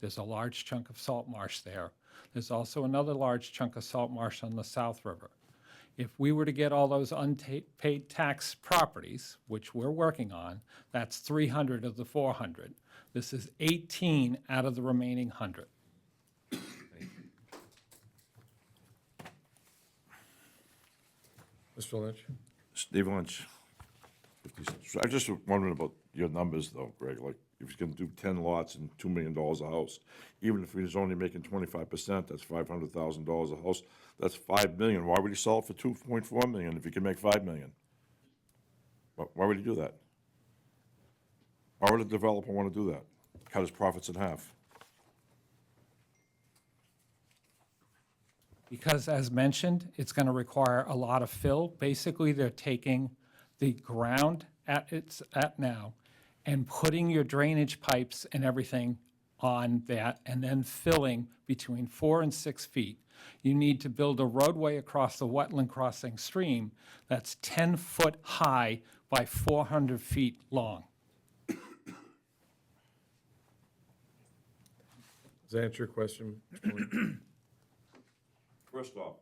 There's a large chunk of salt marsh there. There's also another large chunk of salt marsh on the South River. If we were to get all those unpaid tax properties, which we're working on, that's 300 of the 400. This is 18 out of the remaining 100. Mr. Lynch? Steve Lynch. 56. I was just wondering about your numbers though, Greg, like if you can do ten lots and two million dollars a house, even if he's only making twenty-five percent, that's five hundred thousand dollars a house, that's five million. Why would he sell it for two point four million if he can make five million? Why, why would he do that? Why would a developer want to do that? Cut his profits in half? Because as mentioned, it's going to require a lot of fill. Basically, they're taking the ground at its, at now, and putting your drainage pipes and everything on that, and then filling between four and six feet. You need to build a roadway across the wetland crossing stream that's 10 foot high by 400 feet long. Does that answer your question? Mr. Lynch? First off,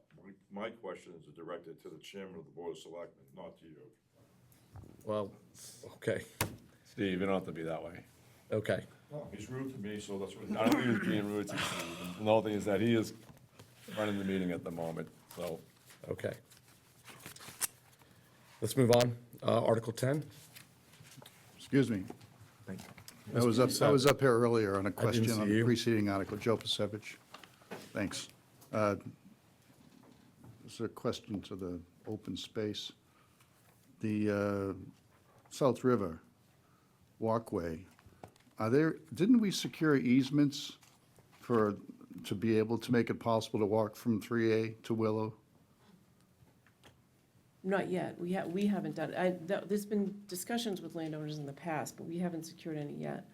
my, my question is directed to the chairman of the board of selectmen, not to you. Well, okay, Steve, you don't have to be that way. okay. Oh, He's rude to me, so that's what. I don't think he's being rude to you. And The whole thing is that he is running the meeting at the moment, so. Okay. Let's move on. Uh, Article 10. Excuse me. I was up, I was up here earlier on a question see on the you. preceding article, Joe Pasevich. Thanks. Uh, This is a question to the open space. The uh, South River walkway, are there, didn't we secure easements for, to be able to make it possible to walk from 3A to Willow? Not yet. We ha, we haven't done, I, th- there's been discussions with landowners in the past, but we haven't secured any yet.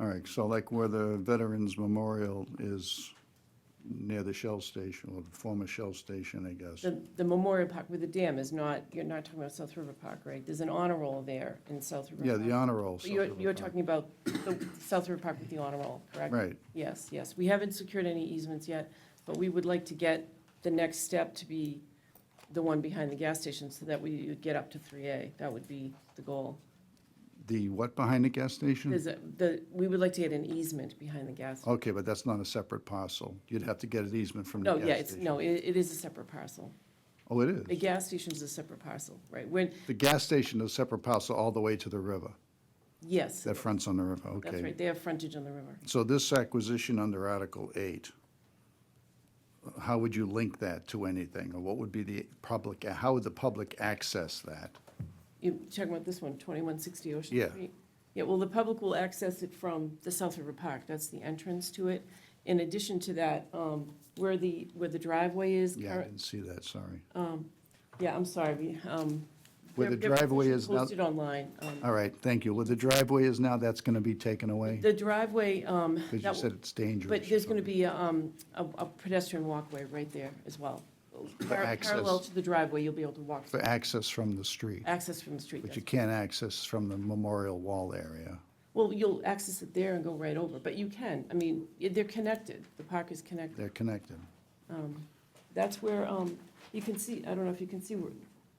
All right, so like where the Veterans Memorial is near the Shell Station, or the former Shell Station, I guess. The, the Memorial Park with the dam is not, you're not talking about South River Park, right? There's an honor roll there in South River. Yeah, the Park. honor roll. But You're, you're talking about the South River Park with the honor roll, correct? Right. Yes, yes. We haven't secured any easements yet, but we would like to get the next step to be the one behind the gas station so that we would get up to three A. That would be the goal. The what behind the gas station? There's a, the, we would like to get an easement behind the gas. Okay, but that's not a separate parcel. You'd have to get an easement from the No, gas station. yeah, it's, no, it, it is a separate parcel. Oh, it The is? gas station's a separate parcel, right? When, The gas station is a separate parcel all the way to the river, yes, that fronts on the river, okay. that's right, they have frontage on the river. So this acquisition under Article 8, how would you link that to anything? Or what would be the public, how would the public access that? You're talking about this one, 2160 Ocean Yeah. Street? Yeah, well, the public will access it from the South River Park, that's the entrance to it. In addition to that, um, where the, where the driveway is. Yeah, I current- didn't see that, sorry. Oh. Yeah, I'm sorry, we, um. Where the their- their driveway petition is now- Posted online. um, All right, thank you. Where the driveway is now, that's going to be taken away? The driveway, um. Because you that- said it's dangerous. But there's going to or be um, a a pedestrian walkway right there as well. Par- access. Parallel to the driveway, you'll be able to walk, For access from the street, access from the street. but that's- you can't access from the memorial wall area. Well, you'll access it there and go right over, but you can, I mean, i- they're connected, the park is connected. They're connected. That's where, um, you can see, I don't know if you can see, where-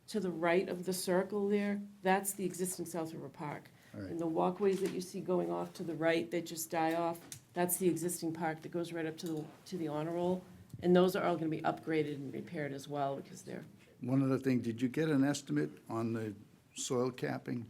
to the right of the circle there, that's the existing South River Park. right. And the walkways that you see going off to the right that just die off, that's the existing park that goes right up to the, to the honor roll. And those are all going to be upgraded and repaired as well, because they're One other thing, did you get an estimate on the soil capping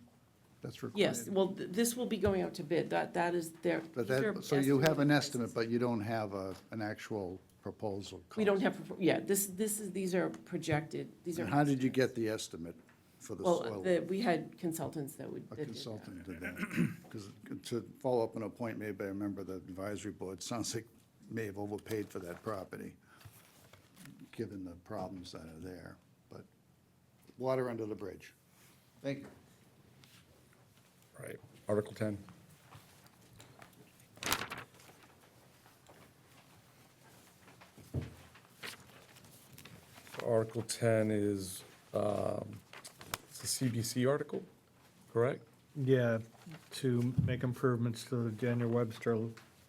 that's required? Yes, well, th- this will be going out to bid, that, that is their. But these are that, so you have an estimated estimate, prices. but you don't have a, an actual proposal. We don't cost. have, yeah, this, this is, these are projected, these are. And how did you get the estimate for the Well, soil? the, we had consultants that would. A that did that. consultant did that. Because to follow up on a point made by a member of the advisory board, sounds like may have overpaid for that property, given the problems that are there. But water under the bridge. Thank you. All right, Article 10. Article 10 is, um, it's a CBC article, correct? Yeah, to make improvements to the Daniel Webster